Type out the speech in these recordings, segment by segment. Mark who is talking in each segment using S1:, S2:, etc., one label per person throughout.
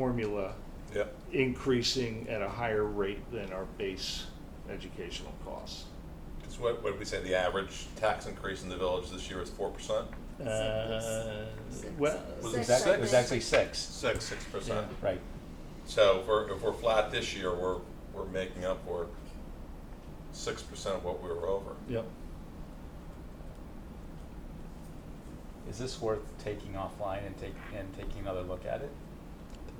S1: formula
S2: Yeah,
S1: increasing at a higher rate than our base educational costs.
S2: because what, what did we say, the average tax increase in the village this year is four percent?
S1: Uh,
S3: Six.
S1: Well,
S3: Was
S4: It was
S3: Six,
S4: act-
S3: I
S4: it was
S3: think.
S4: actually six,
S2: Six. Six percent.
S1: Yeah.
S4: right.
S2: So if we're, if we're flat this year, we're, we're making up for six percent of what we were over.
S1: yep,
S4: Is this worth taking offline and take, and taking another look at it?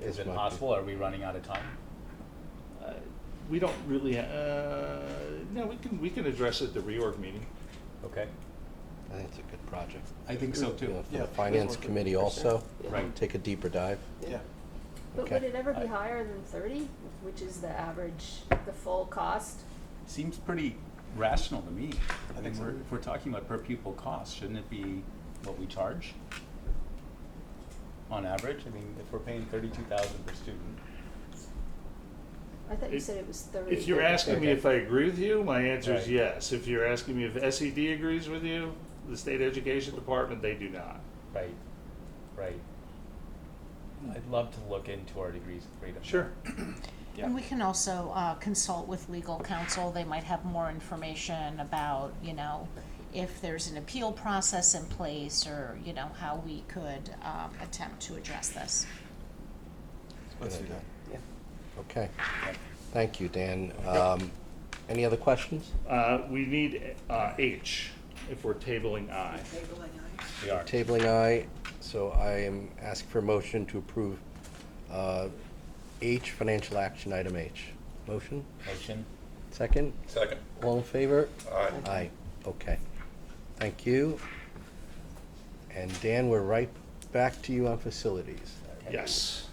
S4: Is
S5: This
S4: it
S5: might be-
S4: possible, are we running out of time?
S1: Uh, we don't really, uh, no, we can, we can address it at the reorg meeting.
S4: Okay,
S5: I think it's a good project.
S4: I think so too.
S5: Yeah, For
S6: Yeah.
S5: the finance
S6: Yeah.
S5: committee also,
S4: Right.
S5: take a deeper dive.
S6: Yeah.
S3: But
S5: Okay.
S3: would it ever
S4: I-
S3: be higher than thirty, which is the average, the full cost?
S4: seems pretty rational to me.
S6: I
S4: I mean,
S6: think so.
S4: we're, if we're talking about per pupil cost, shouldn't it be what we charge? On average, I mean, if we're paying thirty-two thousand per student,
S3: I thought you
S1: If-
S3: said it was thirty.
S1: If you're asking me
S4: Okay.
S1: if I agree with you, my answer is
S4: Right.
S1: yes. If you're asking me if SED agrees with you, the state education department, they do not.
S4: right, right. I'd love to look into our degrees of freedom.
S1: Sure.
S7: And we can also uh, consult with legal counsel, they might have more information about, you know, if there's an appeal process in place, or, you know, how we could um, attempt to address this.
S6: Let's
S5: Good
S6: do that.
S5: Okay,
S4: Right.
S5: thank you, Dan. Um, Any other questions?
S1: Uh, we need, uh, H if we're tabling I.
S4: We are.
S5: Tabling I, so I am asking for a motion to approve uh, H, financial action item H. Motion,
S4: Motion?
S5: second,
S2: Second,
S5: all in favor?
S2: all right,
S5: Aye, okay. Thank you. And Dan, we're right back to you on facilities.
S1: Yes.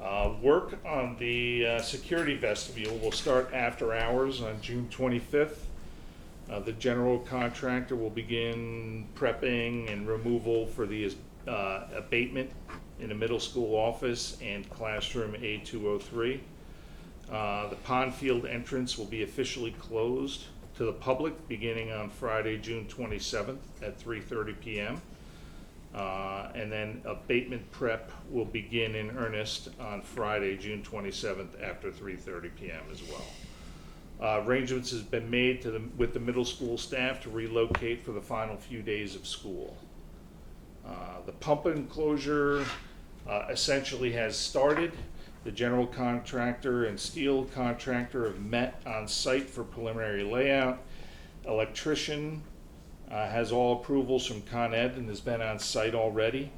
S1: Uh, work on the uh, security vestibule will start after hours on June 25th. Uh, the general contractor will begin prepping and removal for the uh, abatement in the middle school office and classroom A203. Uh, the pond field entrance will be officially closed to the public beginning on Friday, June 27th at 3:30 p.m. Uh, And then abatement prep will begin in earnest on Friday, June 27th, after 3:30 PM as well. Uh, Arrangements has been made to the, with the middle school staff to relocate for the final few days of school. Uh, The pump enclosure uh, essentially has started. The general contractor and steel contractor have met on site for preliminary layout. Electrician uh, has all approvals from Con Ed and has been on site already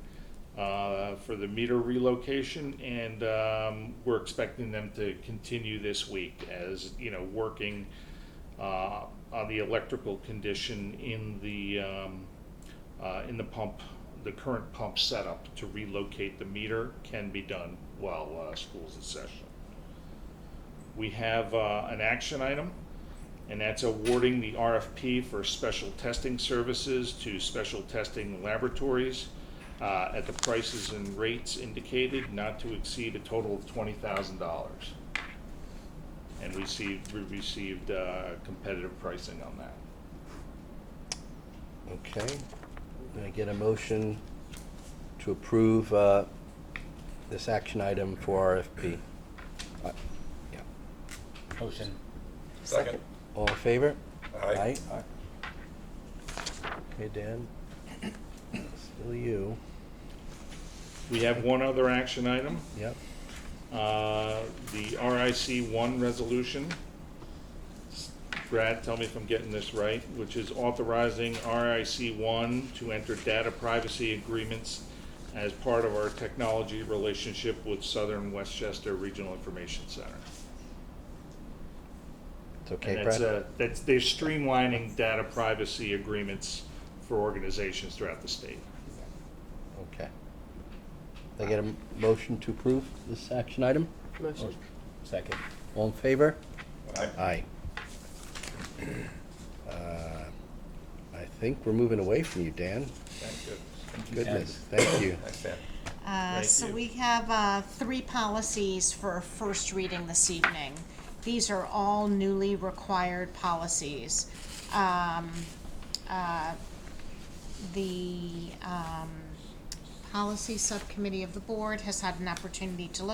S1: uh, for the meter relocation. And um, we're expecting them to continue this week as, you know, working uh, on the electrical condition in the, um, uh, in the pump, the current pump setup to relocate the meter can be done while uh, school's in session. We have uh, an action item, and that's awarding the RFP for special testing services to special testing laboratories uh, at the prices and rates indicated, not to exceed a total of twenty thousand dollars. And we received, we received uh, competitive pricing on that.
S5: Okay, Can I get a motion to approve uh, this action item for RFP. Uh, yeah.
S4: Motion.
S2: second,
S5: All in favor?
S2: aye,
S5: Okay, Dan, still you,
S1: We have one other action item,
S5: yep.
S1: uh, the RIC one resolution. Brad, tell me if I'm getting this right, which is authorizing RIC one to enter data privacy agreements as part of our technology relationship with Southern Westchester Regional Information Center.
S5: It's okay,
S1: And that's,
S5: Brad?
S1: uh, that's, they're streamlining data privacy agreements for organizations throughout the state.
S5: Okay. Can I get a m- motion to approve this action item?
S6: Motion.
S4: Second.
S5: All in favor?
S2: aye.
S5: Aye. Uh, I think we're moving away from you, Dan.
S2: Thank goodness.
S5: Goodness, thank you.
S2: Thanks, Dan.
S7: Uh,
S1: Thank
S7: so
S1: you.
S7: we have uh, three policies for first reading this evening. These are all newly required policies. Um, uh, the um, policy subcommittee of the board has had an opportunity to look.